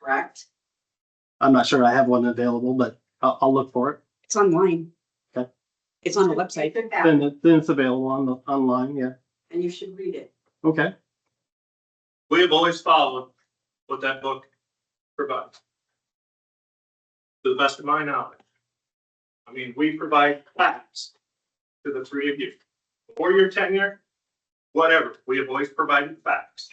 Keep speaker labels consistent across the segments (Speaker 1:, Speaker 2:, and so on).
Speaker 1: correct?
Speaker 2: I'm not sure I have one available, but I'll, I'll look for it.
Speaker 1: It's online.
Speaker 2: Okay.
Speaker 1: It's on the website.
Speaker 3: Check it out.
Speaker 2: Then, it- then it's available on the, online, yeah.
Speaker 1: And you should read it.
Speaker 2: Okay,
Speaker 4: We have always followed what that book provides. To the best of my knowledge. I mean, we provide facts to the three of you. For your tenure, whatever, we have always provided facts.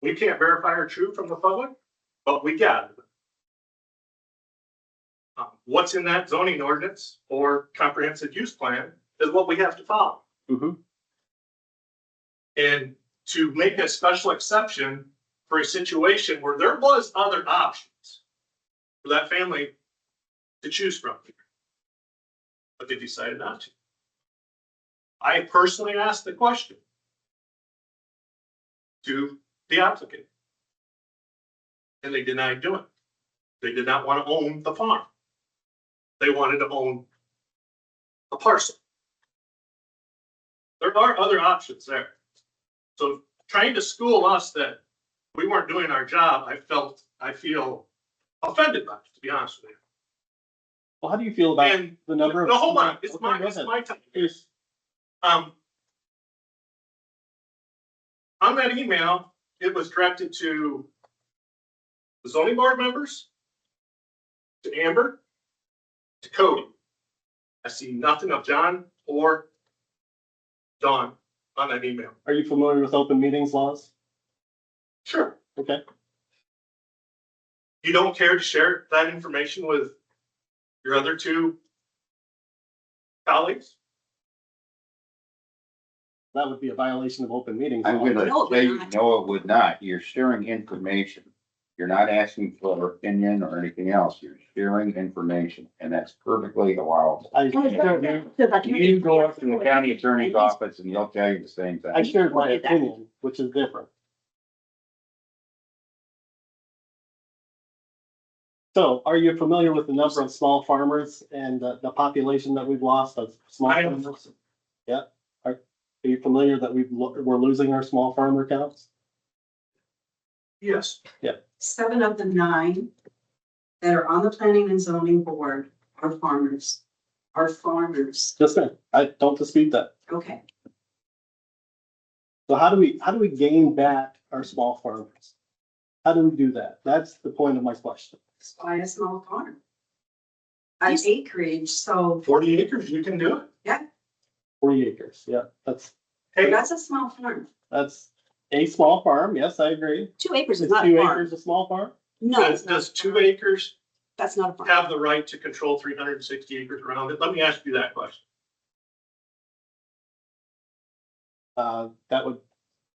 Speaker 4: We can't verify are true from the public, but we gather them. Um, What's in that zoning ordinance or comprehensive use plan is what we have to follow.
Speaker 2: Mhm.
Speaker 4: And to make a special exception for a situation where there was other options for that family to choose from. But they decided not to. I personally asked the question to the applicant. And they denied doing it. They did not want to own the farm. They wanted to own a parcel. There are other options there. So trying to school us that we weren't doing our job, I felt, I feel offended by, it, to be honest with you.
Speaker 2: well, how do you feel about
Speaker 4: And
Speaker 2: the number of?
Speaker 4: no, hold on, it's
Speaker 2: Okay,
Speaker 4: my,
Speaker 2: go
Speaker 4: it's
Speaker 2: ahead.
Speaker 4: my time.
Speaker 2: Here's-
Speaker 4: Um. On that email, it was directed to the zoning board members, to Amber, to Cody. I see nothing of John or Dawn on that email.
Speaker 2: Are you familiar with open meetings laws?
Speaker 4: Sure.
Speaker 2: Okay.
Speaker 4: You don't care to share that information with your other two colleagues?
Speaker 2: That would be a violation of open meetings.
Speaker 5: I'm
Speaker 2: law.
Speaker 1: No,
Speaker 5: gonna
Speaker 1: they're
Speaker 5: say, you
Speaker 1: not.
Speaker 5: no, it would not. You're sharing information. You're not asking for opinion or anything else. You're sharing information and that's perfectly allowable.
Speaker 2: I,
Speaker 5: You go up to the county attorney's office and they'll tell you the same
Speaker 2: I
Speaker 5: thing.
Speaker 2: shared my opinion, which is different. So are you familiar with the number of small farmers and the, the population that we've lost of small?
Speaker 4: I am.
Speaker 2: farmers? Yeah, are, are you familiar that we've, lo- we're losing our small farmer counts?
Speaker 4: Yes.
Speaker 1: Seven of the nine that are on the planning and zoning board are farmers, are farmers.
Speaker 2: Yes, ma'am. I don't dispute that.
Speaker 1: Okay,
Speaker 2: So how do we, how do we gain back our small farmers? How do we do that? That's the point of my question.
Speaker 1: just buy a small farm. An acreage, so
Speaker 4: Forty acres, you can do it.
Speaker 2: Forty acres, yeah, that's,
Speaker 4: Hey,
Speaker 1: that's a small farm.
Speaker 2: that's a small farm. Yes, I agree.
Speaker 1: Two acres is
Speaker 2: Is
Speaker 1: not a
Speaker 2: two
Speaker 1: farm.
Speaker 2: acres a small farm?
Speaker 1: No,
Speaker 4: does,
Speaker 1: it's not.
Speaker 4: does two acres
Speaker 1: That's not a farm.
Speaker 4: have the right to control three hundred and sixty acres around it? Let me ask you that question.
Speaker 2: Uh, that would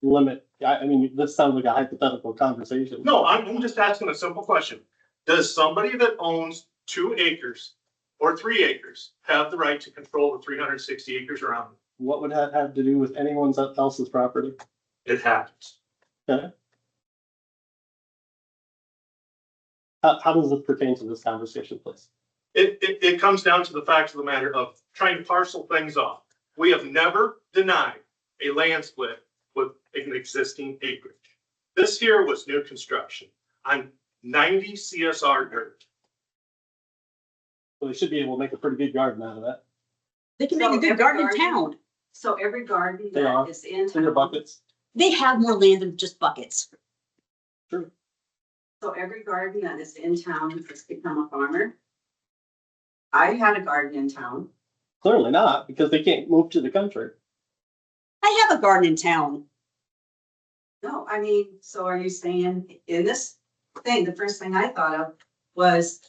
Speaker 2: limit, I, I mean, this sounds like a hypothetical conversation.
Speaker 4: No, I'm, I'm just asking a simple question. Does somebody that owns two acres or three acres have the right to control the three hundred and sixty acres around
Speaker 2: What would that have to do with anyone's else's property?
Speaker 4: it? It happens.
Speaker 2: How, how does this pertain to this conversation, please?
Speaker 4: It, it, it comes down to the fact of the matter of trying to parcel things off. We have never denied a land split with an existing acreage. This here was new construction on ninety CSR dirt.
Speaker 2: So they should be able to make a pretty good garden out of that.
Speaker 6: They can make
Speaker 1: So
Speaker 6: a
Speaker 1: every
Speaker 6: good garden in
Speaker 1: garden-
Speaker 6: town.
Speaker 1: So every garden
Speaker 2: They
Speaker 1: that
Speaker 2: are.
Speaker 1: is in.
Speaker 2: Clear buckets.
Speaker 6: They have more land than just buckets.
Speaker 1: So every garden that is in town has become a farmer. I had a garden in town.
Speaker 2: Clearly not, because they can't move to the country.
Speaker 6: I have a garden in town.
Speaker 1: No, I mean, so are you saying in this thing, the first thing I thought of was,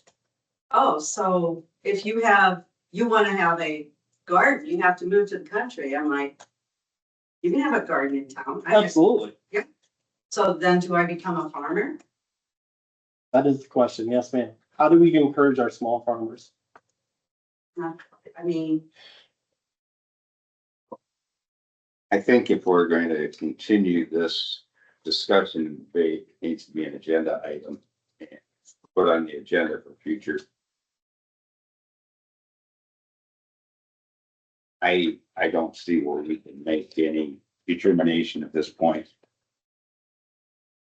Speaker 1: oh, so if you have, you want to have a garden, you have to move to the country. I'm like, you can have a garden in town. I-
Speaker 2: Absolutely.
Speaker 1: So then do I become a farmer?
Speaker 2: That is the question. Yes, ma'am. How do we encourage our small farmers?
Speaker 1: Uh, I mean,
Speaker 5: I think if we're going to continue this discussion and debate, it needs to be an agenda item. and Put on the agenda for future. I, I don't see where we can make any determination at this point.